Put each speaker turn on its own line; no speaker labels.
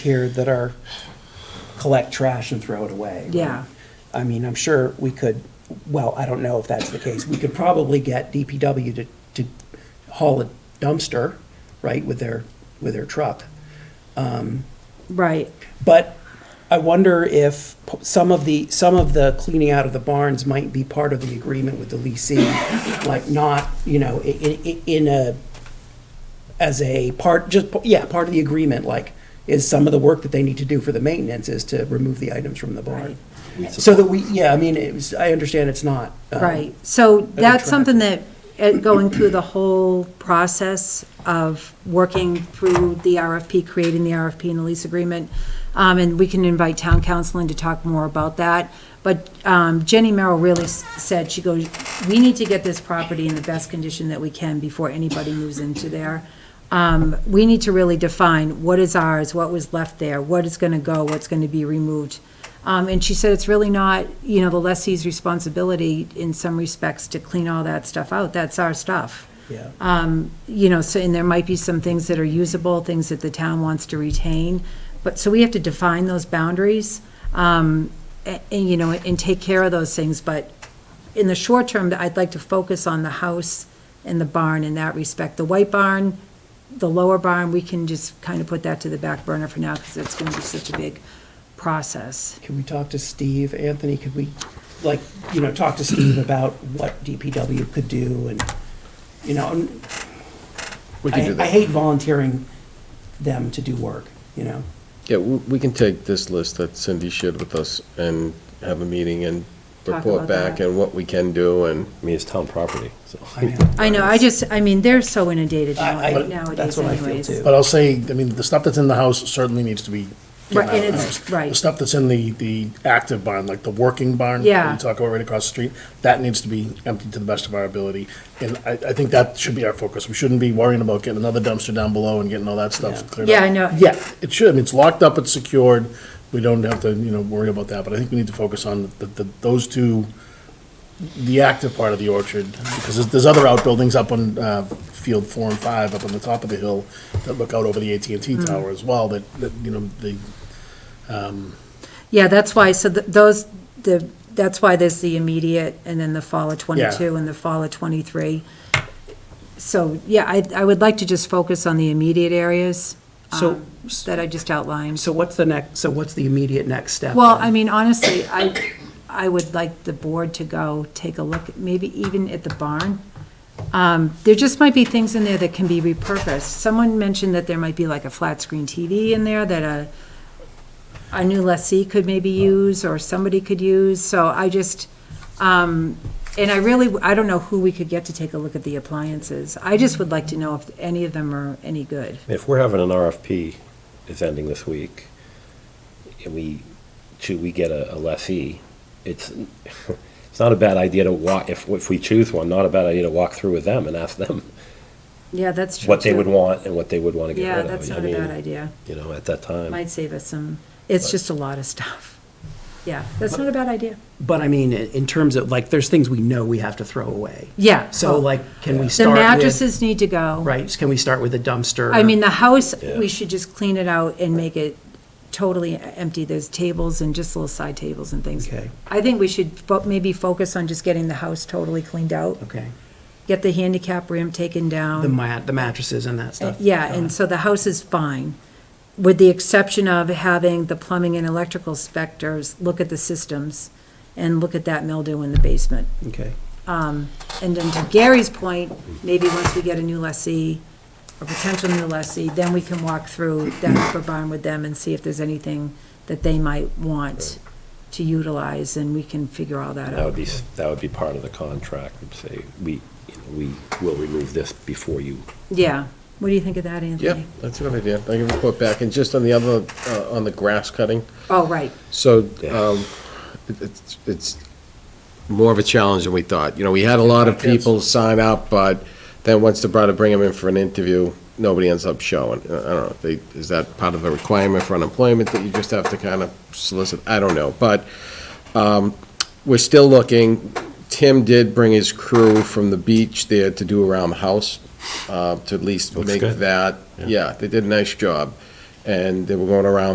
here that are, collect trash and throw it away. right?
Yeah.
I mean, I'm sure we could, well, I don't know if that's the case. We could probably get DPW to, to haul a dumpster, right, with their, with their truck.
Right,
But I wonder if p- some of the, some of the cleaning out of the barns might be part of the agreement with the leasing, like not, you know, in, in, in a, as a part, just, p- yeah, part of the agreement, like, is some of the work that they need to do for the maintenance is to remove the items from the barn. So that we, yeah, I mean, it was, I understand it's not. um,
right. So that's
track.
something that, uh, going through the whole process of working through the RFP, creating the RFP and the lease agreement, um, and we can invite town council in to talk more about that. But um, Jenny Merrill really s- said, she goes, we need to get this property in the best condition that we can before anybody moves into there. um, we need to really define what is ours, what was left there, what is going to go, what's going to be removed. Um, And she said it's really not, you know, the lessee's responsibility in some respects to clean all that stuff out. That's our stuff.
Yeah.
You know, so, and there might be some things that are usable, things that the town wants to retain. But, so we have to define those boundaries, um, a- and, you know, and take care of those things. But in the short term, I'd like to focus on the house and the barn in that respect. The white barn, the lower barn, we can just kind of put that to the back burner for now because it's going to be such a big process.
Can we talk to Steve? Anthony, could we, like, you know, talk to Steve about what DPW could do and, you know, and
We can do
I, I
that.
hate volunteering them to do work, you know?
Yeah, we we can take this list that Cindy shared with us and have a meeting and
Talk
report
about
back
that.
and what we can do and,
I mean, it's town property, so.
I mean,
I know, I just, I mean, they're so inundated now-
I- I- that's
nowadays
what I feel
anyways.
too.
But I'll say, I mean, the stuff that's in the house certainly needs to be
Right,
getting
and
out of the
it's-
house.
right.
The stuff that's in the, the active barn, like the working barn.
Yeah.
We talk about right across the street, that needs to be emptied to the best of our ability. And I, I think that should be our focus. We shouldn't be worrying about getting another dumpster down below and getting all that
Yeah.
stuff cleared up.
Yeah, I know.
Yeah, it should, I mean, it's locked up, it's secured, we don't have to, you know, worry about that, but I think we need to focus on the, the, those two, the active part of the orchard, because there's, there's other outbuildings up on, uh, field four and five, up on the top of the hill, that look out over the AT&T
Mm.
tower as well, that, that, you know, the,
Yeah, that's why, so th- those, the, that's why there's the immediate and then the fall of twenty-two
Yeah.
and the fall of twenty-three. So, yeah, I, I would like to just focus on the immediate areas
So-
um, that I just outlined.
So what's the next, so what's the immediate next step?
Well,
then?
I mean, honestly, I, I would like the board to go take a look, maybe even at the barn. Um, There just might be things in there that can be repurposed. Someone mentioned that there might be like a flat-screen TV in there that a, a new lessee could maybe use, or somebody could use, so I just, um, and I really, I don't know who we could get to take a look at the appliances. I just would like to know if any of them are any good.
If we're having an RFP is ending this week, and we, should we get a a lessee, it's, it's not a bad idea to walk, if, if we choose one, not a bad idea to walk through with them and ask them
Yeah, that's true.
what they would
too.
want and what they would want to get rid
Yeah,
of.
that's
I
not a
mean,
bad idea.
You know, at that time.
Might save us some, it's just a lot of stuff. Yeah, that's not a bad idea.
But I mean, in in terms of, like, there's things we know we have to throw away.
Yeah.
So like, can we
Oh. The
start with?
mattresses need to go.
Right, can we start with a dumpster?
I mean, the house,
Yeah.
we should just clean it out and make it totally empty. There's tables and just little side tables and things.
Okay.
I think we should fo- maybe focus on just getting the house totally cleaned out,
Okay,
get the handicap rim taken down. Eh,
the mat, the mattresses and that stuff.
Yeah, and so the house is fine, with the exception of having the plumbing and electrical specters look at the systems and look at that mildew in the basement.
Okay,
And then to Gary's point, maybe once we get a new lessee, a potential new lessee, then we can walk through that upper barn with them and see if there's anything that they might want to utilize, and we can figure all that
That would
out.
be, s- that would be part of the contract, would say, we, you know, we will remove this before you.
Yeah, what do you think of that,
yeah,
Anthony?
that's a good idea. I can report back. And just on the other, uh, on the grass cutting,
Oh, right,
so um, it- it's, it's more of a challenge than we thought. You know, we had a lot of people sign up, but then once they try to bring them in for an interview, nobody ends up showing. Uh, I don't know, they, is that part of the requirement for unemployment that you just have to kind of solicit? I don't know, but um, we're still looking. Tim did bring his crew from the beach there to do around the house, uh, to at least
Looks
make
good.
that. Yeah, they did a nice job, and they were going around